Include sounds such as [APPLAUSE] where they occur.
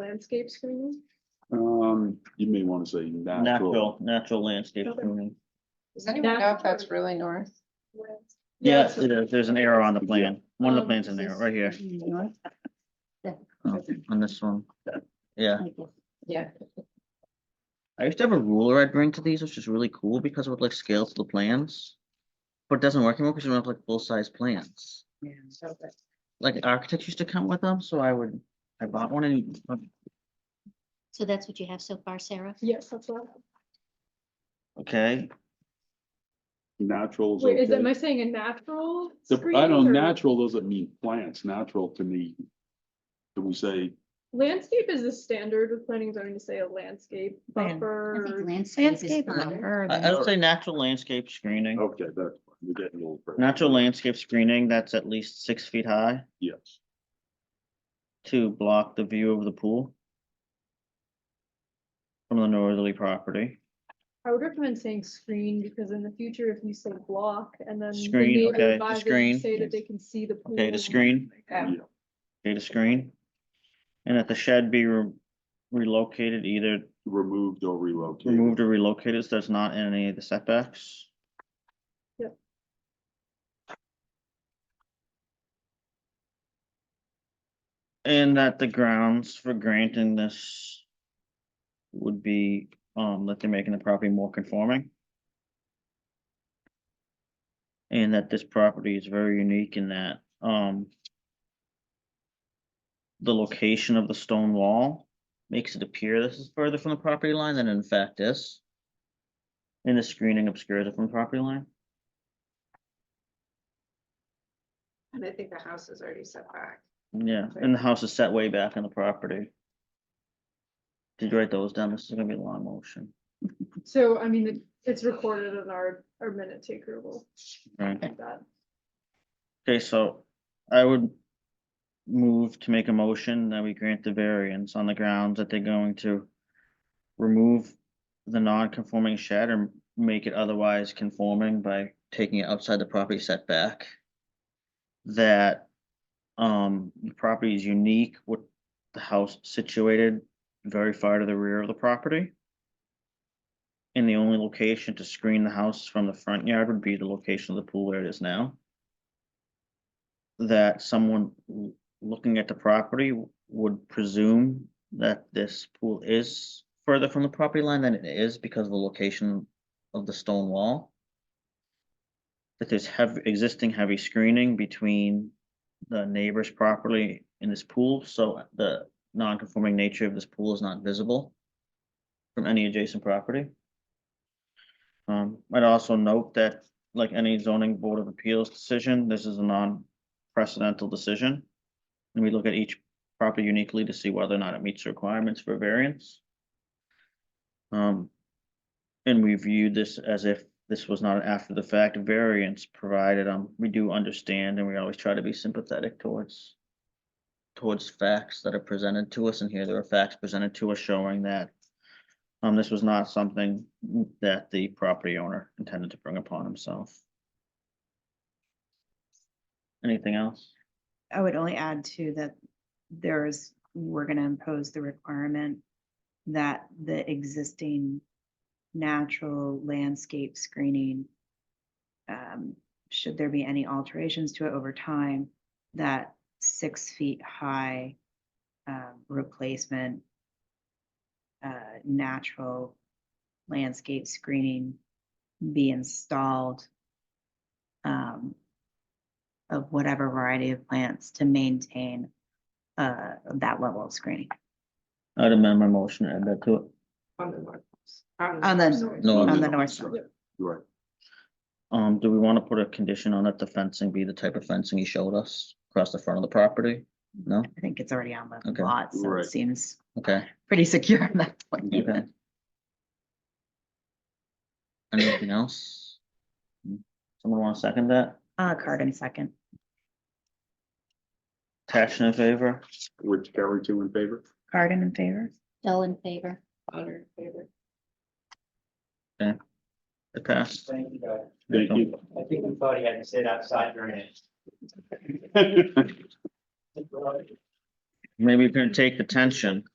landscape screening? Um, you may wanna say natural. Natural, natural landscape. screening. Does anyone know if that's Natural. really north? Yeah, it's- it is. There's an arrow on the plan. One of the Um, plans in there, right here, Oh, on this one. Yeah, Yeah. I used to have a ruler I'd bring to these, which is really cool because it would like scale to the plans. But it doesn't work anymore because you don't have like full-size plans. Like architects used to come with them, so I would, I bought one and So that's what you have so far, Sarah? Yes, that's what. Okay, Naturals. Wait, is, am I saying a natural? I screening don't, or- natural doesn't mean plants, natural to me. Can we say, Landscape is the standard with planning and zoning to say a landscape Land- buffer. Landscape. I, I would say natural landscape screening. okay, that, we're getting a little. further. Natural landscape screening that's at least six feet high Yes, to block the view of the pool. From the northerly property. I would recommend saying screen because in the future, if you say block and then. the Screen, neighbor okay, the advisors screen. Say that they can see the. Okay, the pool. screen. Yeah. yeah, data screen. And that the shed be re- relocated, either removed or relocated. removed or relocated, so it's not in any of the setbacks. Yep. And that the grounds for granting this would be, um, that they're making the property more conforming. And that this property is very unique in that, um, the location of the stone wall makes it appear this is further from the property line than in fact is. And the screening obscures it from the property line. And I think the house is already set back. Yeah, and the house is set way back on the property. Did you write those down? This is gonna be a long motion, So, I mean, it- it's recorded in our, our minute taker will right? do that. Okay, so I would move to make a motion that we grant the variance on the grounds that they're going to remove the non-conforming shed or make it otherwise conforming by taking it outside the property setback. That, um, the property is unique with the house situated very far to the rear of the property. And the only location to screen the house from the front yard would be the location of the pool where it is now that someone l- looking at the property w- would presume that this pool is further from the property line than it is because of the location of the stone wall. That there's heavy existing heavy screening between the neighbor's property and this pool, so the non-conforming nature of this pool is not visible from any adjacent property. Um, I'd also note that, like any zoning board of appeals decision, this is a non, precedental decision. And we look at each property uniquely to see whether or not it meets the requirements for variance. Um, and we view this as if this was not an after the fact variance provided, um, we do understand and we always try to be sympathetic towards towards facts that are presented to us, and here there are facts presented to us showing that um, this was not something that the property owner intended to bring upon himself. Anything else? I would only add to that there's, we're gonna impose the requirement that the existing natural landscape screening, um, should there be any alterations to it over time, that six feet high, um, replacement, uh, natural landscape screening be installed, um, of whatever variety of plants to maintain uh, that level of screening. I'd amend my motion and add that to it. On the north. On the- north. No, On the north side. side. Right, Um, do we want to put a condition on it, the fencing be the type of fencing he showed us across the front of the property? No? I think it's already on Okay. the lot, so Right. it seems Okay. pretty secure at that point. Okay. Anything else? Someone want to second that? Uh, Carden second. Passion in favor? which carry two in favor? Carden in favor? Dull in favor. Honor favor. It passed. Thank you, guys. Thank you. I think we thought he had to sit outside during it. [LAUGHS] Maybe you can take the tension.